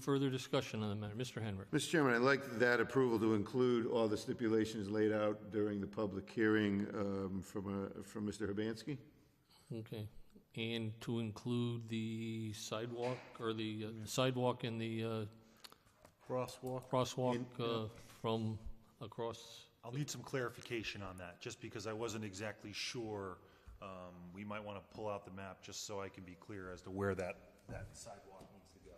Further discussion on the matter? Mr. Henry? Mr. Chairman, I'd like that approval to include all the stipulations laid out during the public hearing um, from, uh, from Mr. Hibansky. Okay. And to include the sidewalk, or the uh, sidewalk and the uh, Crosswalk. crosswalk uh, from across, I'll need some clarification on that, just because I wasn't exactly sure. Um, We might want to pull out the map, just so I can be clear as to where that, that sidewalk needs to go.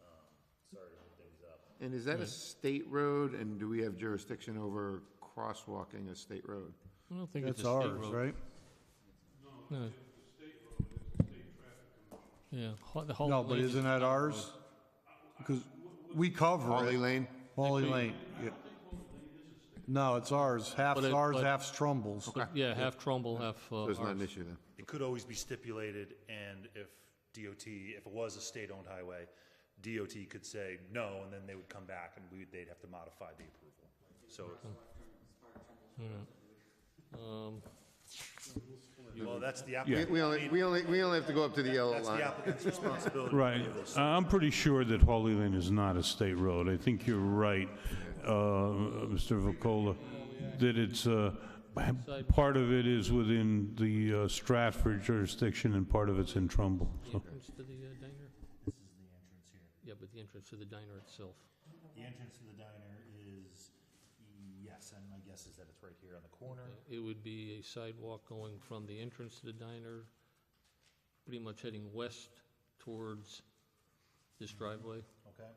Um, Sorry to hold things up. And is that a state road, and do we have jurisdiction over crosswalking a state road? I don't think it's a That's state ours, road. right? No, it's a state road, it's a state traffic Yeah. Ho- the whole No, but lane is- isn't that ours? Because we cover Holly it. Lane? Wally Lane. yeah. No, it's ours. Half's But it- ours, but- half's Trumbull's. Yeah, half Trumbull, half uh, So it's not an ours. issue then? It could always be stipulated, and if DOT, if it was a state-owned highway, DOT could say no, and then they would come back and we, they'd have to modify the approval. So, well, that's the applicant. We only, we only, we only have to go up to the yellow That's line. the applicant's responsibility. Right. I- I'm pretty sure that Holly Lane is not a state road. I think you're right, uh, Mr. Vacola, that it's, uh, part of it is within the uh, Stratford jurisdiction and part of it's in Trumbull. So Entrance to the uh, diner? Yeah, but the entrance to the diner itself. The entrance to the diner is, yes, and my guess is that it's right here on the corner. It would be a sidewalk going from the entrance to the diner, pretty much heading west towards this driveway. Okay.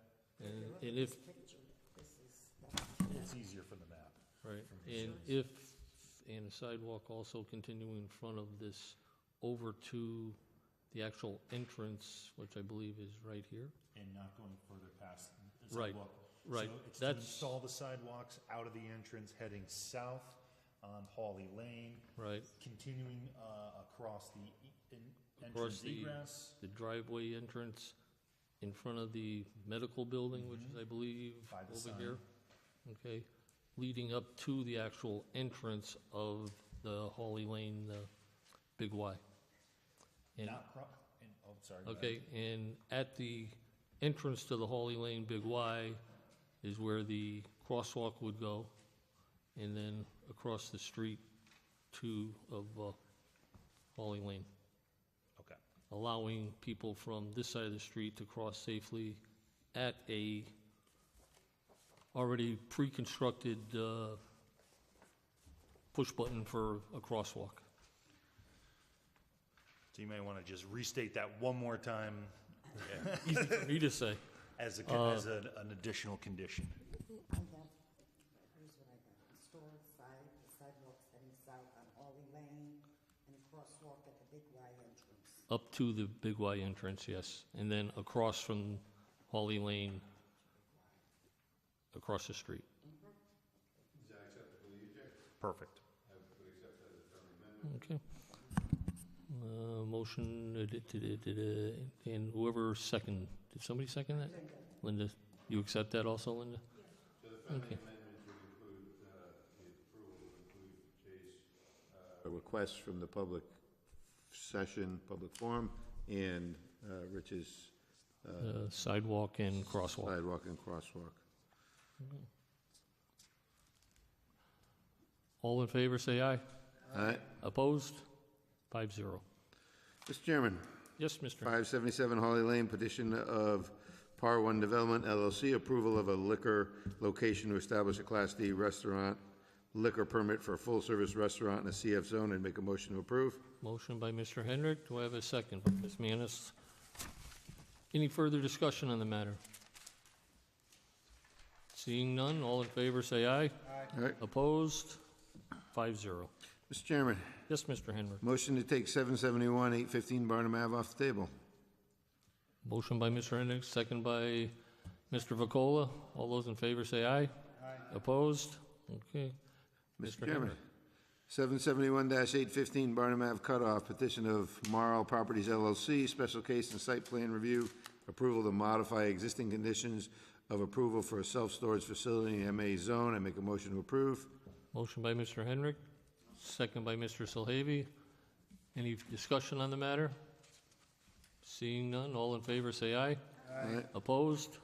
And and if, It's easier from the map. right, and if, and a sidewalk also continuing in front of this over to the actual entrance, which I believe is right here. And not going further past the Right, sidewalk. right. So it's to That's- install the sidewalks out of the entrance, heading south on Hawley Lane. Right. Continuing uh, across the e- en- Across entrance the- egress, The driveway entrance in front of the medical building, which is, I believe, By the over sign. here. Okay, leading up to the actual entrance of the Holly Lane, the Big Y. And- not cro, and, oh, sorry. go ahead. Okay, and at the entrance to the Holly Lane Big Y is where the crosswalk would go, and then across the street to, of uh, Holly Lane Okay. allowing people from this side of the street to cross safely at a already pre-constructed uh, push button for a crosswalk. So you may want to just restate that one more time Easy for me to say. as a, con- as Uh, an an additional condition. I got, here's what I got, store side, the sidewalks heading south on Ollie Lane, and a crosswalk at the Big Y entrance. Up to the Big Y entrance, yes, and then across from Holly Lane, across the street. Perfect. Okay. Uh, Motion, uh, da- da- da- da- da, and whoever second, did somebody second that? Linda, you accept that also, Linda? Okay. A request from the public session, public forum, and uh, Rich's Uh, Sidewalk and crosswalk. sidewalk and crosswalk. All in favor, say aye. All right, Opposed? Five zero. Mr. Chairman, Yes, Mr. 577 Holly Lane, petition of Par One Development LLC, approval of a liquor location to establish a Class D restaurant liquor permit for a full-service restaurant in a CF zone, and make a motion to approve. Motion by Mr. Hendrick. Do I have a second? by Ms. Manis. Any further discussion on the matter? Seeing none, all in favor, say aye. All right, Opposed? Five zero. Mr. Chairman, Yes, Mr. Hendrick. motion to take 771, 815 Barnum Ave off the table. Motion by Mr. Hendrick, second by Mr. Vacola. All those in favor, say aye. Aye. Opposed? Okay. Mr. Mr. Chairman, Henry. 771-815 Barnum Ave cutoff, petition of Marl Properties LLC, special case and site plan review, approval to modify existing conditions of approval for a self-storage facility in MA zone. I make a motion to approve. Motion by Mr. Hendrick, second by Mr. Solhavy. Any discussion on the matter? Seeing none, all in favor, say aye. Aye. Opposed?